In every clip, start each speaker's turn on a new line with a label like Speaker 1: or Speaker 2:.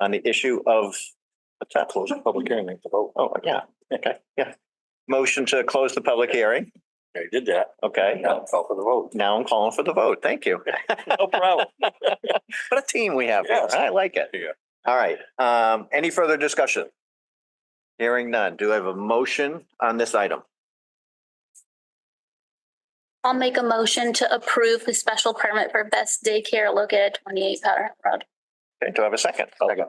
Speaker 1: on the issue of, let's not close the public hearing, we have to vote. Oh, yeah, okay, yeah. Motion to close the public hearing.
Speaker 2: I did that.
Speaker 1: Okay,
Speaker 2: Now call for the vote.
Speaker 1: now I'm calling for the vote. Thank you.
Speaker 2: No problem.
Speaker 1: What a team we have. here.
Speaker 2: Yes.
Speaker 1: I like it.
Speaker 2: Yeah.
Speaker 1: All right. Um, any further discussion? Hearing none. Do I have a motion on this item?
Speaker 3: I'll make a motion to approve the special permit for Best Daycare located at twenty-eight Powder Hill Road.
Speaker 1: Okay, do I have a second? Second.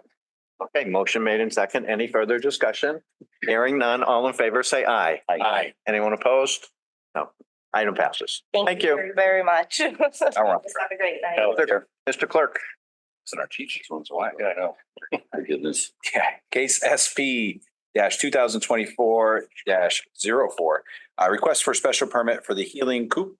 Speaker 1: Okay, motion made in second. Any further discussion? Hearing none. All in favor, say aye.
Speaker 2: Aye.
Speaker 1: Anyone opposed? No. Item passes. Thank you.
Speaker 4: very, Very much. Have
Speaker 1: All right.
Speaker 4: a great night.
Speaker 1: Mr. Clerk,
Speaker 2: It's in our teachers once a while. Yeah, I know. My goodness.
Speaker 5: Yeah, case SP dash two thousand twenty-four dash zero four. Uh, request for special permit for the Healing Coop.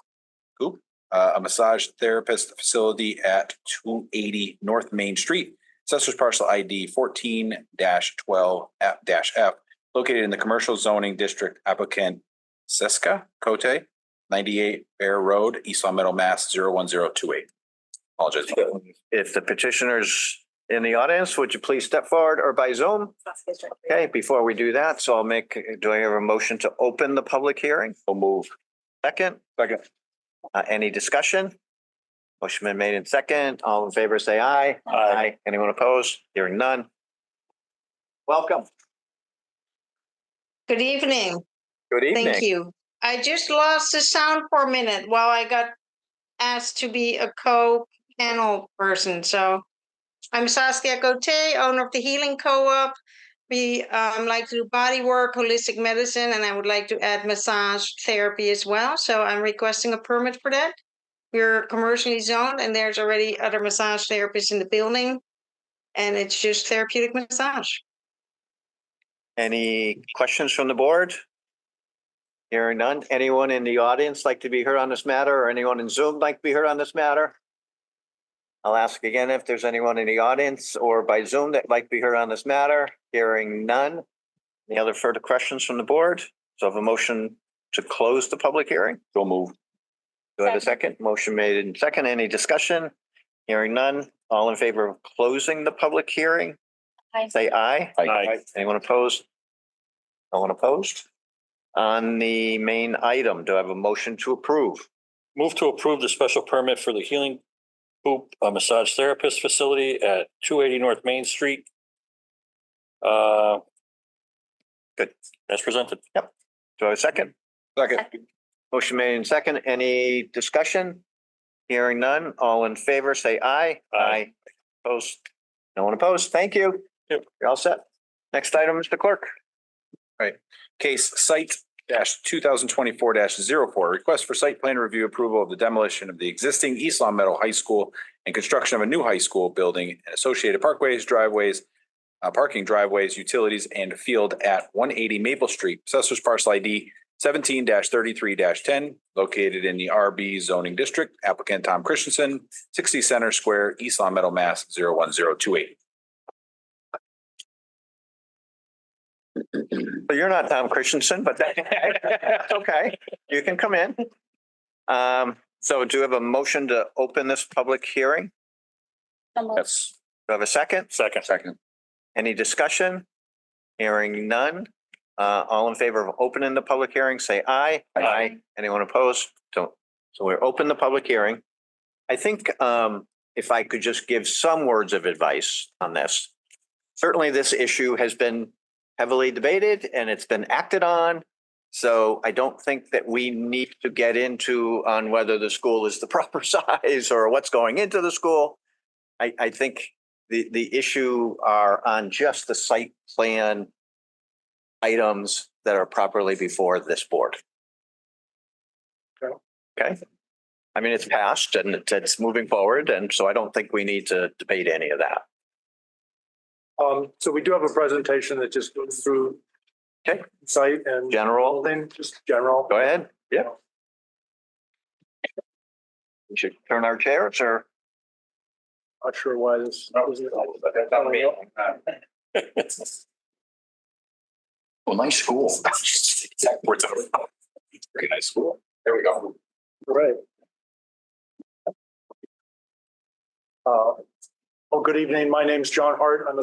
Speaker 5: Coop, uh, a massage therapist facility at two eighty North Main Street. Assessors parcel ID fourteen dash twelve F dash F, located in the commercial zoning district applicant Siska Cote, ninety-eight Bear Road, East Long Meadow, Mass. zero one zero two eight. Apologize.
Speaker 1: if the petitioner's in the audience, would you please step forward or by Zoom? Okay, before we do that, so I'll make, do I have a motion to open the public hearing?
Speaker 2: So move.
Speaker 1: Second?
Speaker 5: Second.
Speaker 1: Uh, any discussion? Motion been made in second. All in favor, say aye. Aye. Anyone opposed? Hearing none. Welcome.
Speaker 6: Good evening.
Speaker 1: Good evening.
Speaker 6: Thank you. I just lost the sound for a minute while I got asked to be a co-panel person, so. I'm Saskia Gote, owner of the Healing Co-op. We um like to do body work, holistic medicine, and I would like to add massage therapy as well, so I'm requesting a permit for that. We're commercially zoned and there's already other massage therapists in the building. And it's just therapeutic massage.
Speaker 1: Any questions from the board? Hearing none. Anyone in the audience like to be heard on this matter or anyone in Zoom like to be heard on this matter? I'll ask again if there's anyone in the audience or by Zoom that like to be heard on this matter. Hearing none. Any other further questions from the board? So I have a motion to close the public hearing.
Speaker 2: So move.
Speaker 1: Do I have a second? Motion made in second. Any discussion? Hearing none. All in favor of closing the public hearing?
Speaker 3: Aye.
Speaker 1: Say aye.
Speaker 2: Aye.
Speaker 1: Anyone opposed? No one opposed? On the main item, do I have a motion to approve?
Speaker 2: Move to approve the special permit for the Healing Hoop uh, Massage Therapist Facility at two eighty North Main Street. Uh. Good. As presented.
Speaker 1: Do I have a second?
Speaker 5: Second.
Speaker 1: Motion made in second. Any discussion? Hearing none. All in favor, say aye.
Speaker 2: Aye.
Speaker 1: Opposed? No one opposed? Thank you.
Speaker 2: Yep.
Speaker 1: You're all set. Next item, Mr. Clerk.
Speaker 5: Case site dash two thousand twenty-four 4 request for site plan review approval of the demolition of the existing East Long Meadow High School and construction of a new high school building and associated parkways, driveways, uh, parking driveways, utilities, and field at one eighty Maple Street, assessors parcel ID seventeen thirty-three ten, located in the RB zoning district, applicant Tom Christensen, sixty Center Square, East Long Meadow, Mass. 01028.
Speaker 1: So you're not Tom Christensen, but that's okay. You can come in. Um, so do you have a motion to open this public hearing?
Speaker 3: So moved.
Speaker 5: Yes.
Speaker 1: Do I have a second?
Speaker 2: Second.
Speaker 5: Second.
Speaker 1: Any discussion? Hearing none. Uh, all in favor of opening the public hearing, say aye.
Speaker 2: Aye.
Speaker 1: Anyone opposed? Don't. So we're open the public hearing. I think, um, if I could just give some words of advice on this. Certainly, this issue has been heavily debated and it's been acted on. So I don't think that we need to get into on whether the school is the proper size or what's going into the school. I, I think the, the issue are on just the site plan items that are properly before this board. Okay. I mean, it's passed and it's, it's moving forward, and so I don't think we need to debate any of that.
Speaker 7: Um, so we do have a presentation that just goes through.
Speaker 1: Okay.
Speaker 7: Site and.
Speaker 1: General,
Speaker 7: Building, just general.
Speaker 1: go ahead. Yeah. We should turn our chairs or,
Speaker 7: Not sure why this.
Speaker 5: Well, nice school. Exact words out of my mouth. Very nice school. There we
Speaker 1: Oh.
Speaker 5: go.
Speaker 7: Right. Uh, well, good evening. My name's John Hart. I'm a